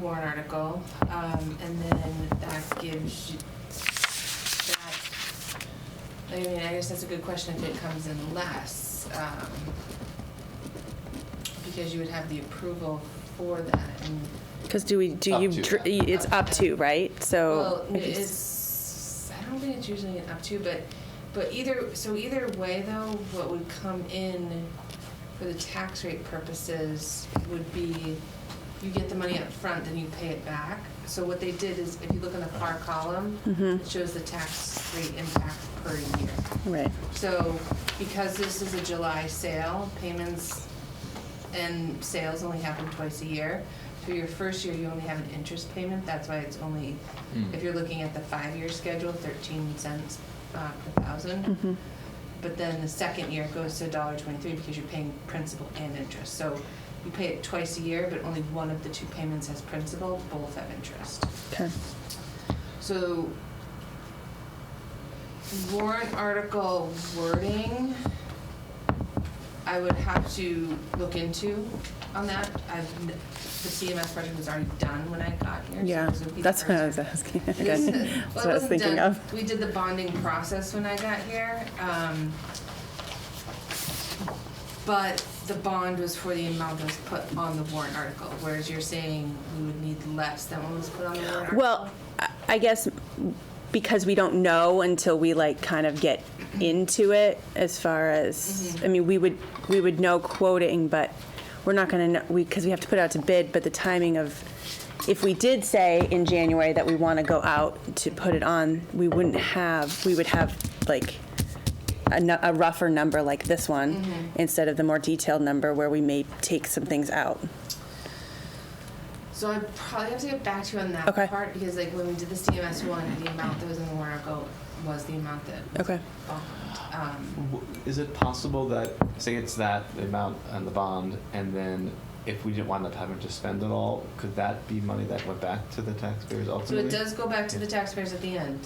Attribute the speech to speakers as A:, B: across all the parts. A: warrant article, um, and then that gives you, that, I mean, I guess that's a good question if it comes in less, um, because you would have the approval for that, and,
B: Because do we, do
C: Up
B: you,
C: to.
B: dr- y- it's up to, right?
A: well,
B: So. if it's-
A: it's, I don't think it's usually an up to, but, but either, so either way, though, what would come in for the tax rate purposes would be, you get the money up front, then you pay it back. So what they did is, if you look in the far column,
B: Mm-hmm.
A: it shows the tax rate impact per year.
B: Right,
A: So because this is a July sale, payments and sales only happen twice a year. So your first year, you only have an interest payment. That's why it's only,
C: Mm.
A: if you're looking at the five-year schedule, 13 cents uh, per
B: Mm. Mm-hmm.
A: thousand. But then the second year goes to $1.23 because you're paying principal and interest. So you pay it twice a year, but only one of the two payments has principal, both have interest.
B: okay.
A: So warrant article wording, I would have to look into on that. I've, n- the CMS project was already done when I got here. so
B: Yeah,
A: this would be the
B: that's what I
A: first
B: was asking.
A: it
B: Okay.
A: isn't-
B: That's
A: well,
B: what I
A: it
B: was
A: wasn't
B: thinking
A: done.
B: of.
A: We did the bonding process when I got here. um, But the bond was for the amount that was put on the warrant article, whereas you're saying we would need less than what was put on the warrant article.
B: Well, I- I guess because we don't know until we like kind of get into it as far as, I mean, we would, we would know quoting, but we're not gonna know, we, because we have to put out to bid, but the timing of, if we did say in January that we want to go out to put it on, we wouldn't have, we would have like a, nu- a rougher number like this one
A: Mm-hmm.
B: instead of the more detailed number where we may take some things out.
A: So I probably have to get back to you on that
B: Okay.
A: part because like when we did the CMS one, the amount that was in the warrant article was the amount that was
B: Okay.
A: bond. Um,
C: W- Is it possible that, say it's that the amount and the bond, and then if we didn't wind up having to spend it all, could that be money that went back to the taxpayers
A: So it
C: ultimately?
A: does go back to the taxpayers at the end.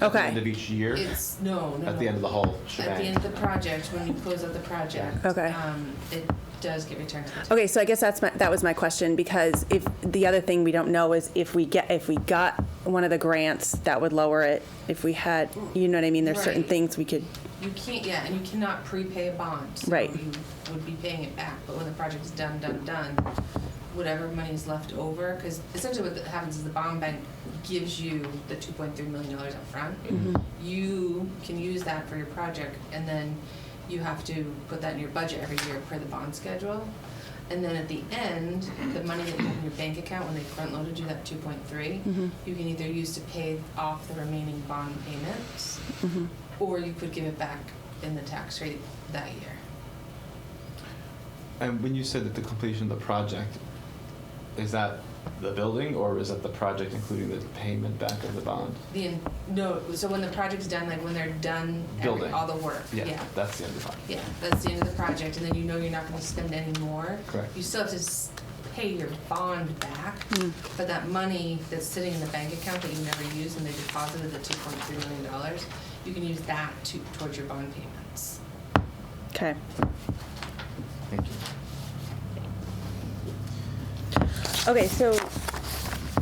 C: At the end
B: Okay.
C: of each year?
A: It's, no, no, no.
C: At the end of the whole
A: At the
C: shebang?
A: end of the project, when you close out the project.
B: Okay.
A: um, It does get returned to the town.
B: Okay, so I guess that's my, that was my question, because if, the other thing we don't know is if we get, if we got one of the grants, that would lower it. If we had, you know what I mean, there's certain
A: Right.
B: things we could,
A: You can't, yeah, and you cannot prepay a bond. so
B: Right.
A: You would be paying it back, but when the project's done, done, done, whatever money is left over, because essentially what happens is the bond bank gives you the two point three million dollars upfront.
B: Mm-hmm.
A: You can use that for your project, and then you have to put that in your budget every year per the bond schedule. And then at the end, the money that you have in your bank account, when they front loaded you that two point three,
B: mm-hmm,
A: you can either use to pay off the remaining bond payments,
B: mm-hmm,
A: or you could give it back in the tax rate that year.
C: And when you said that the completion of the project, is that the building, or is that the project including the payment back of the bond?
A: The, in- no, so when the project's done, like when they're done, every-
C: Building.
A: all the work, yeah.
C: That's the end of the project.
A: Yeah, that's the end of the project, and then you know you're not gonna spend any more.
C: Correct.
A: You still have to s- pay your bond back,
B: mm-hmm,
A: but that money that's sitting in the bank account that you never used and they deposited the two point three million dollars, you can use that to, towards your bond payments.
B: okay.
C: Thank you.
B: Okay, so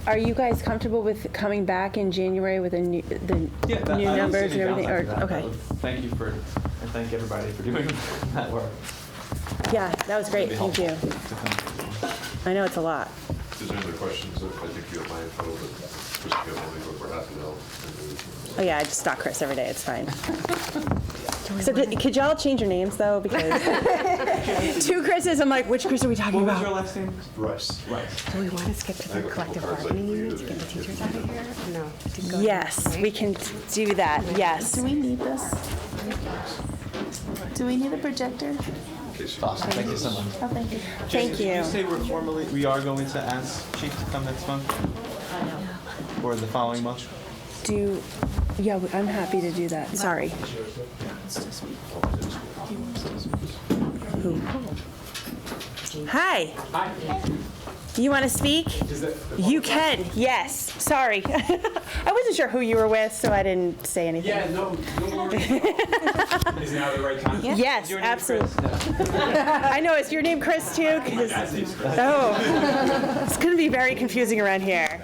B: are you guys comfortable with coming back in January with a new, the
C: Yeah, that,
B: new
C: I don't see
B: numbers and
C: any
B: everything? Or
C: downside to that.
B: Okay,
C: That would- Thank you for, and thank everybody for doing that work.
B: yeah, that was great,
C: It'd
B: thank
C: be
B: you.
C: helpful to come.
B: I know it's a lot.
D: Is there any other questions? I think you have my info, but just give me, but we're happy to help.
B: Oh, yeah, I just stalk Chris every day, it's fine. So did- could y'all change your names, though, because two Chris's, I'm like, which Chris are we talking
C: What was your
B: about?
C: last name?
D: Rice.
C: Rice.
E: Do we want to skip to
D: I
E: the
D: have a couple
E: collective
D: cards I
E: bargaining
D: can
E: unit to
D: leave
E: get the
D: if- if
E: teachers
D: you
E: out of
D: need
E: here? No. to go to-
B: Yes, we
E: right?
B: can do that, yes.
F: Do we need this? Do we need a projector?
D: In case you-
C: Awesome, thank you so much.
F: Oh, thank you.
B: Thank
C: Did
B: you.
C: you say we're formally, we are going to ask Chief to come next month? Or the following month?
B: Do, yeah, we- I'm happy to do that, sorry. Who? Hi. Hi. You want to speak? You can, yes. Sorry. I wasn't sure who you were with, so I didn't say anything.
F: Yeah, no, no worries. Is now the right time?
B: Yeah. Yes,
F: Is your name
B: absolutely.
F: Chris? No,
B: I know, is your name Chris too? 'Cause-
F: my dad's name's Chris.
B: Oh, it's going to be very confusing around here.